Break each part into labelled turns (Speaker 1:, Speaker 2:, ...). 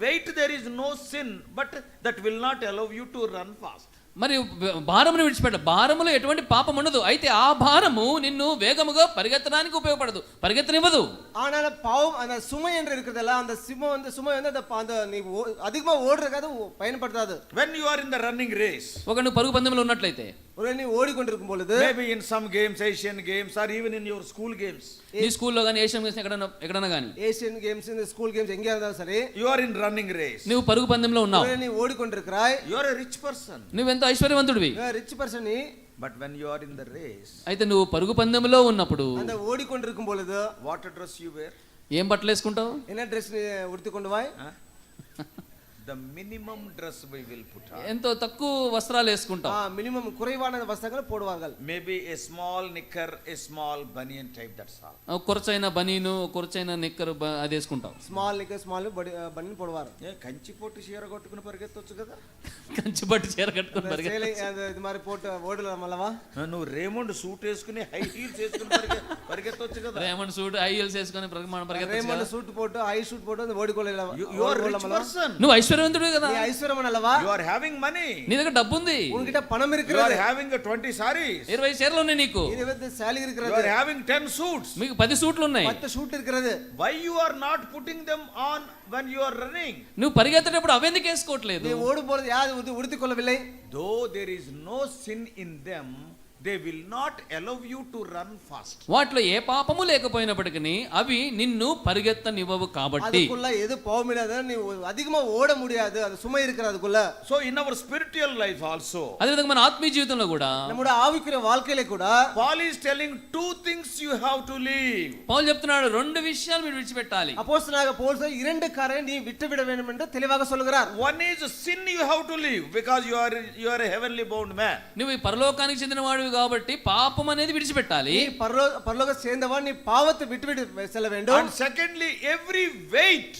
Speaker 1: Weight, there is no sin, but that will not allow you to run fast.
Speaker 2: మరి భారమును విడిచిపెట్ట భారములో ఎటువంటి పాపం ఉండదు అయితే ఆ భారము నిన్ను వేగముగా పరిగెత్తడానికి ఉపయోగపడదు పరిగెత్తనివ్వదు
Speaker 3: ஆனால் பாவம் அந்த சுமை என்று இருக்கிறதல்ல அந்த சுமை வந்து சுமை வந்து அந்த ப- அந்த நீ ஓ- அதிகமா ஓடுறதுக்காக ஓ- பயன்படுத்தாது
Speaker 1: When you are in the running race,
Speaker 2: ఒక నువ్వు పరుగు పందెంలో ఉన్నట్లయితే
Speaker 3: ஒருவேளை நீ ஓடிக்கொண்டிருக்கும் பொழுது
Speaker 1: maybe in some games, Asian games, or even in your school games,
Speaker 2: నీ స్కూల్లో కానీ ఏషియన్ గేమ్స్ ఎక్కడన్నా ఎక్కడన్నా కానీ
Speaker 3: ஏசியன் கேம்ஸ் இந்த ஸ்கூல் கேம்ஸ் எங்கேயா இருந்தாலும் சரி
Speaker 1: you are in running race.
Speaker 2: నువ్వు పరుగు పందెంలో ఉన్నావు
Speaker 3: ஒருவேளை நீ ஓடிக்கொண்டிருக்கிறாய்
Speaker 1: You are a rich person,
Speaker 2: నువ్వెంతో ఐశ్వర్యవంతుడివి
Speaker 3: ரிச் பர்சன் நீ
Speaker 1: but when you are in the race,
Speaker 2: అయితే నువ్వు పరుగు పందెంలో ఉన్నప్పుడు
Speaker 3: அந்த ஓடிக்கொண்டிருக்கும் பொழுது
Speaker 1: what dress you wear?
Speaker 2: ఏం బట్టలు వేసుకుంటావు
Speaker 3: என்ன ட்ரெஸ் நீ உடுத்தி கொண்டு வாய்
Speaker 1: Huh? The minimum dress we will put on.
Speaker 2: ఎంతో తక్కువ వస్త్రాలు వేసుకుంటావు
Speaker 3: மினிமம் குறைவான வஸ்திரங்களை போடுவார்கள்
Speaker 1: Maybe a small knicker, a small bunian type, that's all.
Speaker 2: ఆ కొరచైన బనీను కొరచైన నిక్కరు బ- అది వేసుకుంటావు
Speaker 3: ஸ்மால் நிக்க ஸ்மால் படி பண்ணி போடுவார்
Speaker 1: ఏ కంచి పొట్టు చీర కొట్టుకుని పరిగెత్తొచ్చు కదా
Speaker 2: కంచి పట్టు చీర కట్టుకుని
Speaker 3: இந்த
Speaker 2: పరిగె-
Speaker 3: சேலை அந்த இது மாதிரி போட்டு ஓடலாம் அல்லவா
Speaker 1: నువ్వు రేమండ్ సూట్ వేసుకుని హై హీల్స్ వేసుకుని పరిగె పరిగెత్తొచ్చు కదా
Speaker 2: రేమండ్ సూట్ ఐఎల్స్ వేసుకొని ప్రగమాన పరిగెత్తచ్చు
Speaker 3: ரேமண்ட் சூட் போட்டு ஐ சூட் போட்டு அந்த ஓடிக்கொள்ளலாம்
Speaker 1: You- you are rich person.
Speaker 2: నువ్వు ఐశ్వర్యవంతుడివి కదా
Speaker 3: நீ ஐஸ்வரமன் அல்லவா
Speaker 1: You are having money.
Speaker 2: నీ దగ్గర డబ్బు ఉంది
Speaker 3: உன்கிட்ட పణం
Speaker 1: You are
Speaker 3: இருக்கிறது
Speaker 1: having a 20 sarees.
Speaker 2: ఇరవై చీరలు ఉన్నాయి నీకు
Speaker 3: இருபது சேலரி
Speaker 1: You
Speaker 3: இருக்கிறது
Speaker 1: are having 10 suits.
Speaker 2: మీకు పది సూట్లు ఉన్నాయి
Speaker 3: பத்து ஷூட் இருக்கிறது
Speaker 1: Why you are not putting them on when you are running?
Speaker 2: నువ్వు పరిగెత్తేటప్పుడు అవెందుకు వేసుకోవట్లేదు
Speaker 3: நீ ஓடும் பொழுது யார் உடுத்தி- உடுத்திக் கொள்ளவில்லை
Speaker 1: Though there is no sin in them, they will not allow you to run fast.
Speaker 2: వాటిలో ఏ పాపము లేకపోయినప్పటికీ అవి నిన్ను పరిగెత్తనివ్వవు కాబట్టి
Speaker 3: அதுக்குள்ள எது போக முடியாது நீ ஒ- அதிகமா ஓட முடியாது அது சுமை இருக்கிறது அதுக்குள்ள
Speaker 1: So in our spiritual life also,
Speaker 2: అదేవిధంగా మన ఆత్మీయ జీవితంలో కూడా
Speaker 3: நம்முடைய ஆவிக்குரிய வாழ்க்கையில கூட
Speaker 1: Paul is telling two things you have to leave.
Speaker 2: పౌలు చెప్తున్నాడు రెండు విషయాలు మీరు విడిచిపెట్టాలి
Speaker 3: அப்போஸ்தலனாக பவுல் சார், இரண்டு காரை நீ விட்டுவிட வேண்டும் என்று தெளிவாக சொல்லுகிறார்
Speaker 1: One is sin you have to leave because you are you are a heavenly bound man.
Speaker 2: నువ్వు ఈ పరలోకానికి చెందినవాడివి కాబట్టి పాపం అనేది విడిచిపెట్టాలి
Speaker 3: நீ பரலோ பரலோக சேர்ந்தவன் நீ பாவத்தை விட்டுவிட்டு செல்ல வேண்டும்
Speaker 1: And secondly, every weight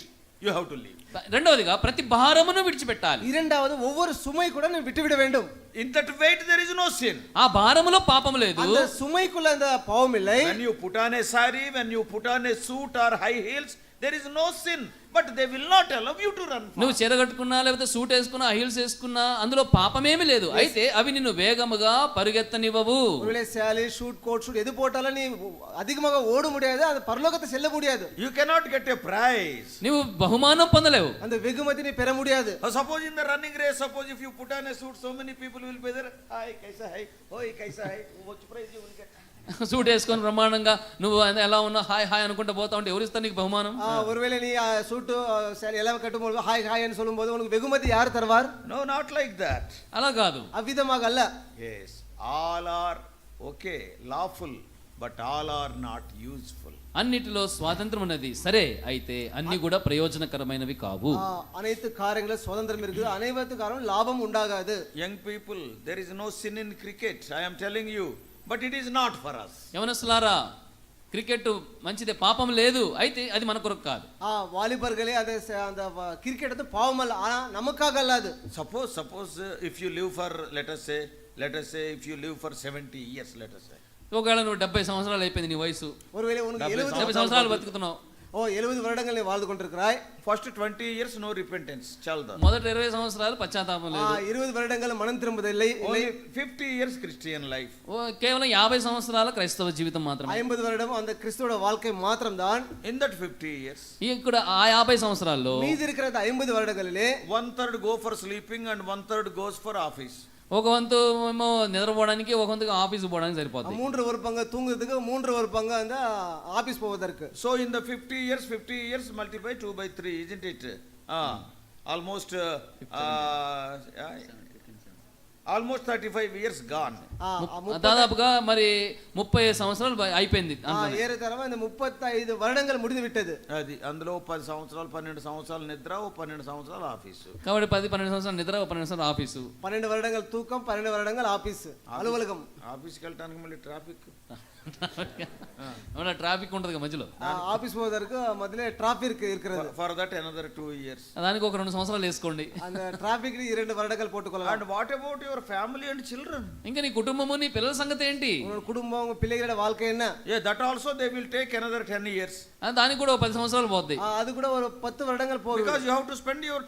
Speaker 1: you have to leave.
Speaker 2: రెండవదిగా ప్రతి భారమును విడిచిపెట్టాలి
Speaker 3: இரண்டாவது ஒவ்வொரு சுமை கூட நீ விட்டுவிட வேண்டும்
Speaker 1: In that weight there is no sin.
Speaker 2: ఆ భారములో పాపం లేదు
Speaker 3: அந்த சுமைக்குள்ள அந்த பாவம் இல்லை
Speaker 1: When you put on a sari, when you put on a suit or high heels, there is no sin, but they will not allow you to run.
Speaker 2: నువ్వు చీర కట్టుకున్నా లేకపోతే సూట్ వేసుకున్నా హీల్స్ వేసుకున్నా అందులో పాపమేమీ లేదు అయితే అవి నిన్ను వేగముగా పరిగెత్తనివ్వవు
Speaker 3: ஒருவேளை சேலை ஷூட் கோட் ஷூட் எது போட்டாலும் நீ அதிகமாக ஓட முடியாது அது பரலோகத்தை செல்ல முடியாது
Speaker 1: You cannot get a prize.
Speaker 2: నువ్వు బహుమానం పొందలేవు
Speaker 3: அந்த வெகுமதி நீ பெற முடியாது
Speaker 1: Uh, Suppose in the running race, suppose if you put on a suit, so many people will be there. Hi, kaisa hai? Oi, kaisa hai? What prize you will get?
Speaker 2: Suit వేసుకొని బ్రహ్మాండంగా నువ్వు ఎలా ఉన్నా hi hi అనుకుంటా పోతా ఉంటే ఎవరు ఇస్తారు నీకు బహుమానం
Speaker 3: ஆ, ஒருவேளை நீ ஆ, சூட்டு ஆ, சேலை எல்லாம் கட்டும்போது ஹாய் ஹாய்ன்னு சொல்லும்போது உனக்கு வெகுமதி யார் தருவார்
Speaker 1: No, not like that.
Speaker 2: అలా కాదు
Speaker 3: அவ்விதமாக அல்ல
Speaker 1: Yes, all are okay, lawful, but all are not useful.
Speaker 2: అన్నిటిలో స్వాతంత్రం ఉన్నది సరే అయితే అన్ని కూడా ప్రయోజనకరమైనవి కావు
Speaker 3: ஆ, அனைத்து காரியங்களும் சுதந்திரம் இருக்குது அனைத்து காரணம் லாபம் உண்டாகாது
Speaker 1: Young people, there is no sin in cricket, I am telling you, but it is not for us.
Speaker 2: యవనస్తులారా క్రికెట్ మంచిదే పాపం లేదు అయితే అది మన కొరకు కాదు
Speaker 3: ஆ, வாலிபர்களே அது ச- அந்த வ- கிரிக்கெட் வந்து பாவம் அல்ல ஆனா நமக்காக அல்லாது
Speaker 1: Suppose, suppose uh, if you live for, let us say, let us say, if you live for 70 years, let us say.
Speaker 2: ఒకవేళ నువ్వు డెబ్బై సంవత్సరాలు అయిపోయింది నీ వయసు
Speaker 3: ஒருவேளை உனக்கு எழுபது
Speaker 2: డెబ్బై సంవత్సరాలు బతుకుతున్నావు
Speaker 3: ஓ எழுபது வருடங்கள் நீ வாழ்ந்து கொண்டிருக்கிறாய்
Speaker 1: First 20 years, no repentance, chalda.
Speaker 2: మొదటి ఇరవై సంవత్సరాలు పశ్చాత్తాపం
Speaker 3: ஆ,
Speaker 2: లేదు
Speaker 3: இருபது வருடங்கள் மனம் திரும்புவதில்லை
Speaker 1: Only 50 years Christian life.
Speaker 2: ఓ, కేవలం యాభై సంవత్సరాల క్రైస్తవ జీవితం మాత్రమే
Speaker 3: ஐம்பது வருடம் அந்த கிறிஸ்துவோட வாழ்க்கை మాత్రంதான்
Speaker 1: In that 50 years,
Speaker 2: ఈ ఇక్కడ ఆ యాభై సంవత్సరాల్లో
Speaker 3: மீதி இருக்கிற அந்த ஐம்பது வருடங்களிலே
Speaker 1: one third go for sleeping and one third goes for office.
Speaker 2: ఒక వంతు ఏమో నిద్రపోవడానికి ఒక వంతు ఆఫీస్ పోవడానికి సరిపోతుంది
Speaker 3: மூன்று ஒரு பங்கு தூங்குறதுக்கு மூன்று ஒரு பங்கு அந்த ஆபீஸ் போவதற்கு
Speaker 1: So in the 50 years, 50 years multiply 2 by 3, isn't it? Ah, almost, uh, uh, yeah, almost 35 years gone.
Speaker 3: ஆ, ஆ,
Speaker 2: ఆ, దాదాపుగా మరి ముప్పై సంవత్సరాలు బ- అయిపోయింది
Speaker 3: ஆ, ஏறத்தாழமா இந்த முப்பத்தைந்து வருடங்கள் முடிந்து விட்டது
Speaker 1: అది అందులో పది సంవత్సరాలు పన్నెండు సంవత్సరాలు నిద్ర ఓ పన్నెండు సంవత్సరాలు ఆఫీసు
Speaker 2: కాబట్టి పది పన్నెండు సంవత్సరాలు నిద్ర ఒక పన్నెండు సంవత్సరాలు ఆఫీసు
Speaker 3: பன்னெண்டு வருடங்கள் தூக்கம் பன்னெண்டு வருடங்கள் ஆபீஸ் அலுவலகம்
Speaker 1: ఆఫీస్కి వెళ్ళటానికి మళ్ళీ ట్రాఫిక్
Speaker 2: ఏమన్నా ట్రాఫిక్ ఉంటుంది మధ్యలో
Speaker 3: ஆபீஸ் போவதற்கு முதல்ல டிராபிக் இருக்கிறது
Speaker 1: For- for that another two years.
Speaker 2: దానికి ఒక రెండు సంవత్సరాలు వేసుకోండి
Speaker 3: அந்த டிராபிக் இரண்டு வருடங்கள் போட்டுக்கொள்ளலாம்
Speaker 1: And what about your family and children?
Speaker 2: ఇంకా నీ కుటుంబము నీ పిల్లల సంగతి ఏంటి
Speaker 3: உங்களோட குடும்பம் உங்க பிள்ளைகளோட வாழ்க்கை என்ன
Speaker 1: Yeah, that also they will take another ten years.
Speaker 2: ఆ, దానికి కూడా ఒక పది సంవత్సరాలు పోద్ది
Speaker 3: ஆ, அது கூட ஒரு பத்து வருடங்கள் போகும்
Speaker 1: Because you have to spend your